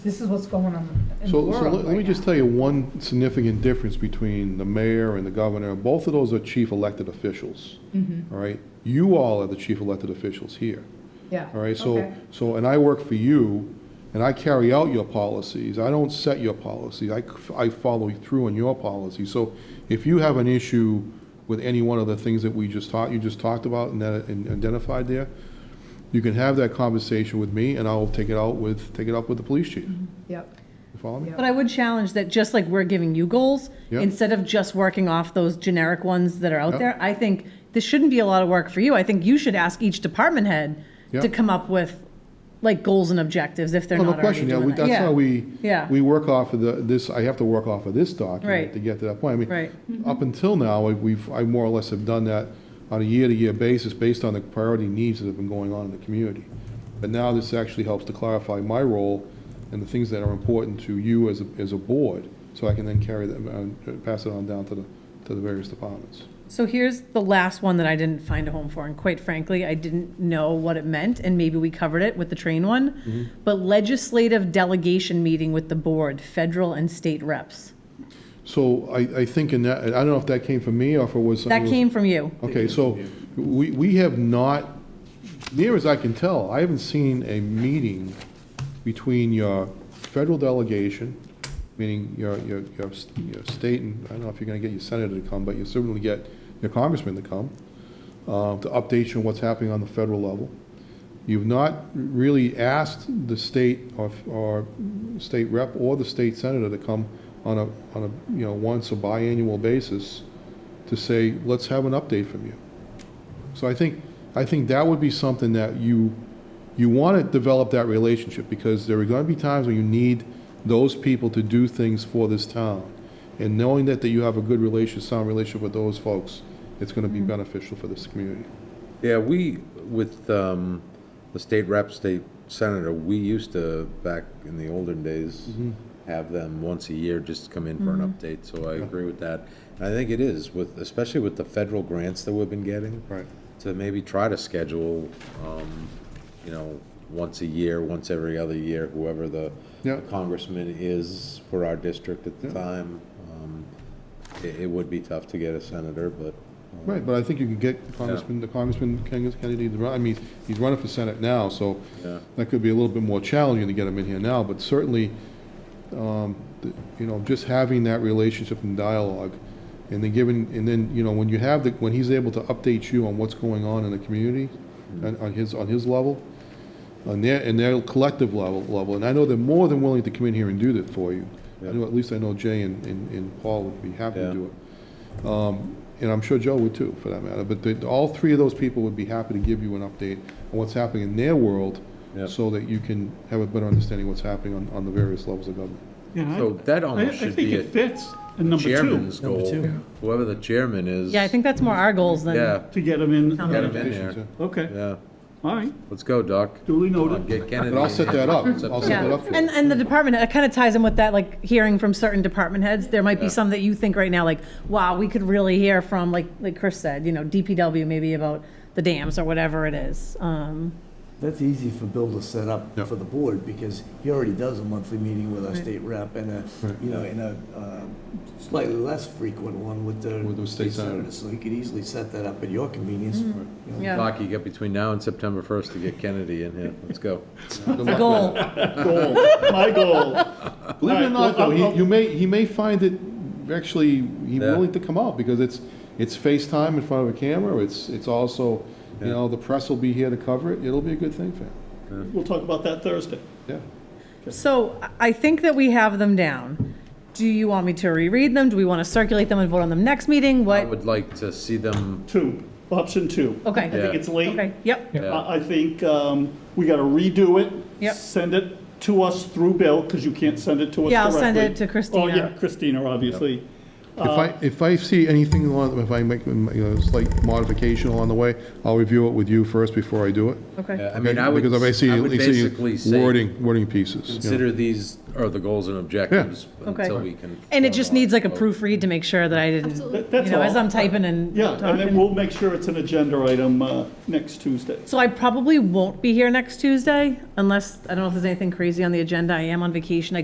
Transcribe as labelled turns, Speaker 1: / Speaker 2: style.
Speaker 1: This is what's going on in the
Speaker 2: So,
Speaker 1: world
Speaker 2: so let let me
Speaker 1: right
Speaker 2: just
Speaker 1: now.
Speaker 2: tell you one significant difference between the mayor and the governor. Both of those are chief elected officials,
Speaker 1: Mm-hmm.
Speaker 2: all right? You all are the chief elected officials here,
Speaker 1: Yeah.
Speaker 2: all right? So,
Speaker 1: okay.
Speaker 2: so, and I work for you, and I carry out your policies. I don't set your policy. I, c- I follow through on your policy. So if you have an issue with any one of the things that we just taught, you just talked about and that- and identified there, you can have that conversation with me, and I'll take it out with, take it up with the police chief.
Speaker 1: Yep.
Speaker 2: You follow me?
Speaker 1: Mm-hmm. Yeah.
Speaker 3: But I would challenge that just like we're giving you goals,
Speaker 2: Yeah.
Speaker 3: instead of just working off those generic ones that are
Speaker 2: Yeah.
Speaker 3: out there, I think this shouldn't be a lot of work for you. I think you should ask each department head
Speaker 2: Yeah.
Speaker 3: to come up with like goals and objectives if they're
Speaker 2: Oh,
Speaker 3: not
Speaker 2: No
Speaker 3: already
Speaker 2: question, yeah,
Speaker 3: doing
Speaker 2: we-
Speaker 3: that.
Speaker 2: that's
Speaker 3: Yeah.
Speaker 2: how we,
Speaker 3: Yeah.
Speaker 2: we work off of the, this, I have to work off of this document
Speaker 3: Right.
Speaker 2: to get to that point. I mean,
Speaker 3: Right. Mm-hmm.
Speaker 2: Up until now, I- we've, I more or less have done that on a year-to-year basis based on the priority needs that have been going on in the community. But now this actually helps to clarify my role and the things that are important to you as, a as a board, so I can then carry them, uh, pass it on down to the, to the various departments.
Speaker 3: So here's the last one that I didn't find a home for, and quite frankly, I didn't know what it meant, and maybe we covered it with the train one.
Speaker 2: Mm-hmm.
Speaker 3: But legislative delegation meeting with the board, federal and state reps.
Speaker 2: So I, I think in that, I don't know if that came from me or if it was. something
Speaker 3: That
Speaker 2: that was- Oh.
Speaker 3: came from you.
Speaker 2: Okay, so we, we have not, near as I can tell, I haven't seen a meeting between your federal delegation, meaning your, your, your s- your state, and I don't know if you're gonna get your senator to come, but you certainly get your congressman to come, uh, to update you on what's happening on the federal level. You've not really asked the state or, or state rep or the state senator to come on a, on a, you know, once or biannual basis to say, let's have an update from you. So I think, I think that would be something that you, you want to develop that relationship because there are going to be times when you need those people to do things for this town. And knowing that, that you have a good relationship, sound relationship with those folks, it's going to be beneficial for this community.
Speaker 4: Yeah, we, with um, the state rep, state senator, we used to, back in the olden days,
Speaker 5: Mm-hmm.
Speaker 4: have them once a year just come in for an update, so I agree with that. And I think it is, with, especially with the federal grants that we've been getting.
Speaker 2: Right.
Speaker 4: To maybe try to schedule, um, you know, once a year, once every other year, whoever the
Speaker 2: Yeah.
Speaker 4: congressman is for our district at the time. Um, It it would be tough to get a senator, but, um,
Speaker 2: Right, but I think you can get Congressman, the Congressman Ken- Kennedy, to run. I mean, he's running for Senate now, so
Speaker 4: Yeah.
Speaker 2: that could be a little bit more challenging to get him in here now, but certainly, um, th- you know, just having that relationship and dialogue, and then giving, and then, you know, when you have, the when he's able to update you on what's going on in the community,
Speaker 4: Mm-hmm.
Speaker 2: on on his, on his level, on their, and their collective level, level, and I know they're more than willing to come in here and do that for you. I
Speaker 4: Yeah.
Speaker 2: know, at least I know Jay and, and and Paul would be happy to
Speaker 4: Yeah.
Speaker 2: do it and I'm sure Joe would too, for that matter, but the- all three of those people would be happy to give you an update on what's happening in their world,
Speaker 4: Yeah.
Speaker 2: so that you can have a better understanding of what's happening on, on the various levels of government.
Speaker 5: Yeah, I-
Speaker 4: so that
Speaker 5: I,
Speaker 4: almost
Speaker 5: I
Speaker 4: should
Speaker 5: think
Speaker 4: be
Speaker 5: it
Speaker 4: it.
Speaker 5: fits in number two,
Speaker 4: chairman's goal,
Speaker 6: two.
Speaker 4: whoever the chairman is.
Speaker 3: Yeah, I think that's more our goals than.
Speaker 4: Yeah,
Speaker 5: to get them in.
Speaker 4: get him in
Speaker 2: Yeah.
Speaker 4: there.
Speaker 5: Okay,
Speaker 4: Yeah,
Speaker 5: all right,
Speaker 4: let's go, Doc.
Speaker 5: duly
Speaker 4: Come on,
Speaker 5: noted.
Speaker 4: Get Kennedy.
Speaker 2: But I'll set that up,
Speaker 4: Set
Speaker 2: I'll
Speaker 4: that
Speaker 2: set
Speaker 3: Yeah,
Speaker 2: that up for
Speaker 3: and,
Speaker 2: you.
Speaker 4: Mm.
Speaker 3: and the department, it kind of ties in with that, like, hearing from certain department heads. There might be some that you think right now, like, wow, we could really hear from, like, like Chris said, you know, DPW maybe about the dams or whatever it is. Um,
Speaker 6: That's easy for Bill to set up
Speaker 2: Yeah.
Speaker 6: for the board, because he already does a monthly meeting with our state rep and a, you know, and a uh, slightly less frequent one with the.
Speaker 2: With the state senator.
Speaker 6: So he could easily set that up at your convenience. you know.
Speaker 3: Yeah.
Speaker 4: Doc, you got between now and September first to get Kennedy in here. Let's go.
Speaker 3: The goal,
Speaker 2: Goal.
Speaker 5: My goal.
Speaker 2: Believe it or not, though, he, you may, he may find it, actually, he
Speaker 4: Yeah.
Speaker 2: willing to come out, because it's, it's FaceTime in front of a camera, it's, it's also, you
Speaker 4: Yeah.
Speaker 2: know, the press will be here to cover it, it'll be a good thing for him,
Speaker 5: We'll talk about that Thursday.
Speaker 2: yeah.
Speaker 3: so I- I think that we have them down. Do you want me to reread them? Do we want to circulate them and vote on them next meeting?
Speaker 4: I
Speaker 3: What?
Speaker 4: would like to see them,
Speaker 5: Two, option two.
Speaker 3: Okay.
Speaker 5: I think
Speaker 4: Yeah.
Speaker 5: it's late.
Speaker 3: Okay, yep,
Speaker 2: Uh,
Speaker 4: yeah,
Speaker 5: I I think um, we got to redo it.
Speaker 3: Yep.
Speaker 5: Send it to us through Bill, because you can't send it to us directly.
Speaker 3: Yeah, I'll send it to
Speaker 5: Oh,
Speaker 3: Christina.
Speaker 5: yeah, Christina, obviously.
Speaker 2: If I, if I see anything along, if I make, you know, slight modification along the way, I'll review it with you first before I do it.
Speaker 4: Yeah,
Speaker 3: Okay.
Speaker 4: I mean, I would,
Speaker 2: Because if I see,
Speaker 4: I
Speaker 2: at
Speaker 4: would basically
Speaker 2: least see
Speaker 4: say,
Speaker 2: wording, wording pieces. you know.
Speaker 4: consider these are the goals and objectives
Speaker 3: Okay.
Speaker 4: until we can.
Speaker 3: And it just needs like a
Speaker 4: formalize.
Speaker 3: proofread to make sure that I didn't,
Speaker 1: Absolutely.
Speaker 5: That's
Speaker 3: you know, as
Speaker 5: all.
Speaker 3: I'm typing and
Speaker 5: Yeah, and then
Speaker 3: talking.
Speaker 5: we'll make sure it's an agenda item uh, next Tuesday.
Speaker 3: So I probably won't be here next Tuesday unless, I don't know if there's anything crazy on the agenda. I am on vacation. I